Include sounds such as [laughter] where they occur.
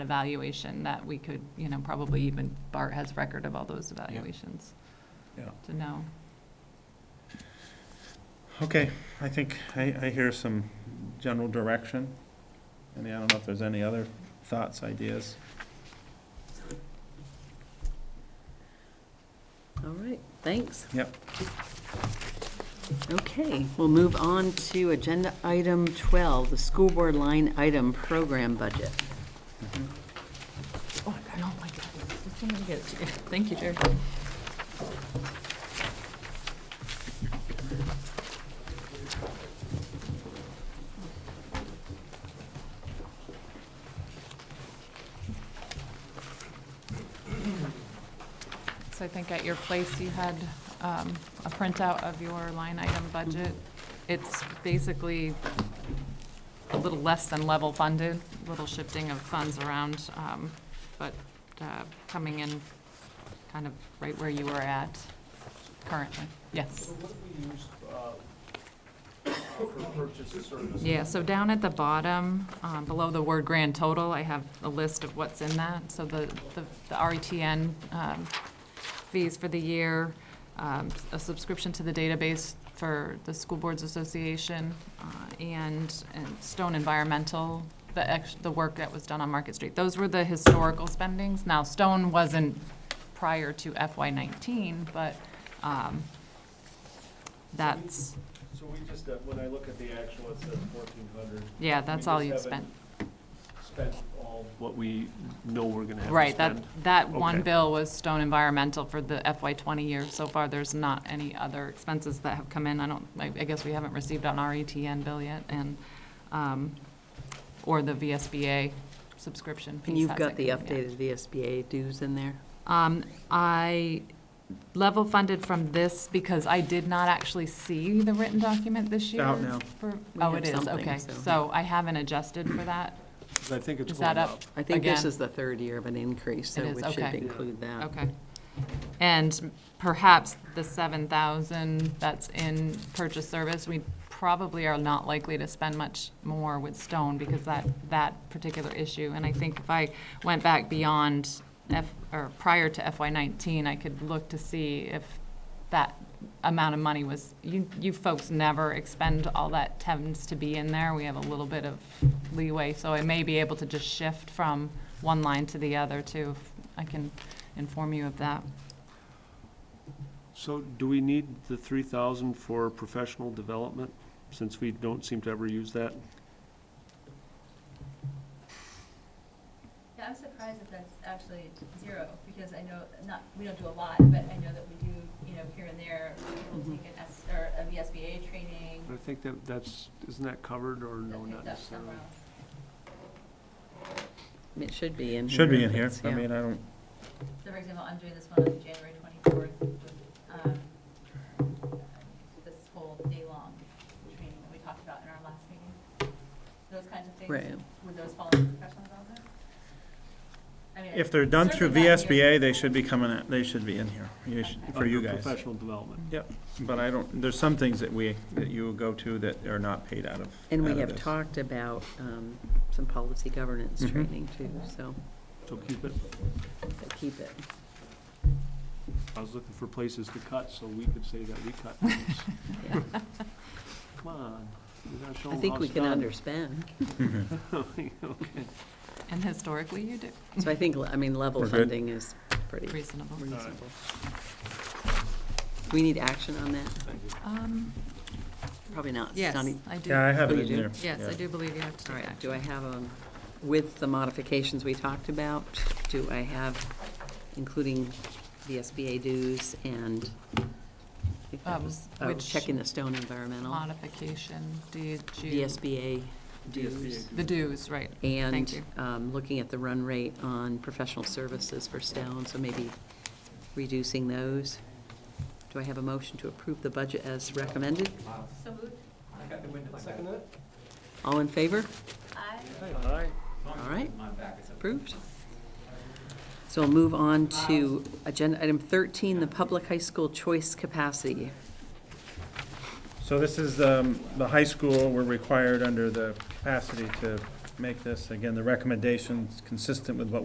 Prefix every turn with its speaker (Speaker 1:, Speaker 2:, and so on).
Speaker 1: evaluation that we could, you know, probably even Bart has record of all those evaluations
Speaker 2: Yeah.
Speaker 1: to know.
Speaker 2: Okay, I think, I, I hear some general direction. And I don't know if there's any other thoughts, ideas.
Speaker 3: All right, thanks.
Speaker 2: Yep.
Speaker 3: Okay, we'll move on to agenda item 12, the school board line item program budget.
Speaker 1: Oh, my God. Just wanted to get it to you. Thank you, Jerry. So I think at your place, you had um, a printout of your line item budget. It's basically a little less than level funded, a little shifting of funds around, um, but uh, coming in kind of right where you were at currently. Yes.
Speaker 4: So what do we use uh, for purchase of services?
Speaker 1: Yeah, so down at the bottom, um, below the word grand total, I have a list of what's in that. So the, the the RETN um, fees for the year, um, a subscription to the database for the School Boards Association, uh, and and Stone Environmental, the ex, the work that was done on Market Street. Those were the historical spendings. Now, Stone wasn't prior to FY nineteen, but um, that's,
Speaker 4: So we just, uh, when I look at the actual, it says fourteen hundred.
Speaker 1: yeah, that's all you've spent.
Speaker 4: Spent all what we know we're gonna have to spend.
Speaker 1: Right, that, that one
Speaker 4: Okay.
Speaker 1: bill was Stone Environmental for the FY twenty year. So far, there's not any other expenses that have come in. I don't, I, I guess we haven't received an RETN bill yet and, um, or the VSBA subscription piece.
Speaker 3: And you've
Speaker 1: hasn't
Speaker 3: got the
Speaker 1: come in yet.
Speaker 3: updated VSBA dues in there?
Speaker 1: Um, I level funded from this because I did not actually see the written document this year.
Speaker 2: out now.
Speaker 1: for-
Speaker 3: We
Speaker 1: Oh,
Speaker 3: have
Speaker 1: it is,
Speaker 3: something,
Speaker 1: okay.
Speaker 3: so-
Speaker 1: So I haven't adjusted for that.
Speaker 4: 'Cause I think it's
Speaker 1: Is that
Speaker 4: going
Speaker 1: up?
Speaker 4: up.
Speaker 3: I think this
Speaker 1: Again.
Speaker 3: is the third year of an increase, so
Speaker 1: It is,
Speaker 3: we should
Speaker 1: okay.
Speaker 3: include that.
Speaker 1: Okay. And perhaps the seven thousand that's in purchase service, we probably are not likely to spend much more with Stone because that, that particular issue. And I think if I went back beyond F, or prior to FY nineteen, I could look to see if that amount of money was, you, you folks never expend all that tends to be in there. We have a little bit of leeway, so I may be able to just shift from one line to the other too. if I can inform you of that.
Speaker 5: So do we need the three thousand for professional development, since we don't seem to ever use that?
Speaker 6: Yeah, I'm surprised that that's actually zero, because I know, not, we don't do a lot, but I know that we do, you know, here and there, we'll
Speaker 3: Mm-hmm.
Speaker 6: take an S, or a VSBA training.
Speaker 5: I think that, that's, isn't that covered, or
Speaker 6: that's
Speaker 5: no,
Speaker 6: picked
Speaker 5: not
Speaker 6: up
Speaker 5: necessarily?
Speaker 6: somewhere else.
Speaker 3: It should be in here.
Speaker 2: Should be in
Speaker 3: if
Speaker 2: here.
Speaker 3: it's-
Speaker 2: I
Speaker 3: yeah.
Speaker 2: mean, I don't,
Speaker 6: So for example, I'm doing this one on January twenty-fourth, um, this whole day-long training that we talked about in our last meeting. Those kinds of things,
Speaker 3: Right.
Speaker 6: would those fall under professional development? I mean,
Speaker 2: if they're done through
Speaker 6: certainly not here.
Speaker 2: VSBA, they should be coming, in- they should be in here, you should- for you
Speaker 5: Under
Speaker 2: guys.
Speaker 5: Professional development.
Speaker 2: But I don't, there's some things that we, that you go to that are not paid out of.
Speaker 3: And
Speaker 2: out
Speaker 3: we
Speaker 2: of
Speaker 3: have
Speaker 2: this.
Speaker 3: talked about um, some policy governance
Speaker 2: Mhm.
Speaker 3: training too, so
Speaker 5: So keep it,
Speaker 3: but
Speaker 2: [laughs]
Speaker 3: keep it.
Speaker 5: I was looking for places to cut, so we could say that we cut. things.
Speaker 3: yeah.
Speaker 5: Come on, we gotta show
Speaker 3: I
Speaker 5: 'em
Speaker 3: think
Speaker 5: how
Speaker 3: we
Speaker 5: it's
Speaker 3: can
Speaker 5: done.
Speaker 3: underspend.
Speaker 5: [laughs]
Speaker 2: Mm-hmm.
Speaker 5: Okay.
Speaker 1: And historically, you do.
Speaker 3: So I think, I mean, level
Speaker 2: We're good.
Speaker 3: funding is pretty
Speaker 1: Reasonable.
Speaker 3: reasonable. We need action on that?
Speaker 1: Um,
Speaker 3: Probably not.
Speaker 1: yes,
Speaker 3: Not e-
Speaker 1: I do.
Speaker 2: Yeah, I have
Speaker 3: Oh,
Speaker 2: it
Speaker 3: you
Speaker 2: in
Speaker 3: do?
Speaker 2: there.
Speaker 1: Yes, I do believe you have to
Speaker 3: All
Speaker 1: take
Speaker 3: right, do I
Speaker 1: action.
Speaker 3: have, um, with the modifications we talked about, do I have, including the SBA dues and, I think that
Speaker 1: Um,
Speaker 3: was, oh,
Speaker 1: which
Speaker 3: checking the stone environmental,
Speaker 1: Modification, did
Speaker 3: the
Speaker 1: you?
Speaker 3: SBA dues,
Speaker 1: The dues, right. Thank
Speaker 3: and
Speaker 1: you.
Speaker 3: um, looking at the run rate on professional services for stone, so maybe reducing those. Do I have a motion to approve the budget as recommended?
Speaker 6: So moved,
Speaker 3: All in favor?
Speaker 6: I.
Speaker 3: All right, it's approved. So we'll move on to agenda item 13, the public high school choice capacity.
Speaker 2: So this is, um, the high school, we're required under the capacity to make this, again, the recommendation's consistent with what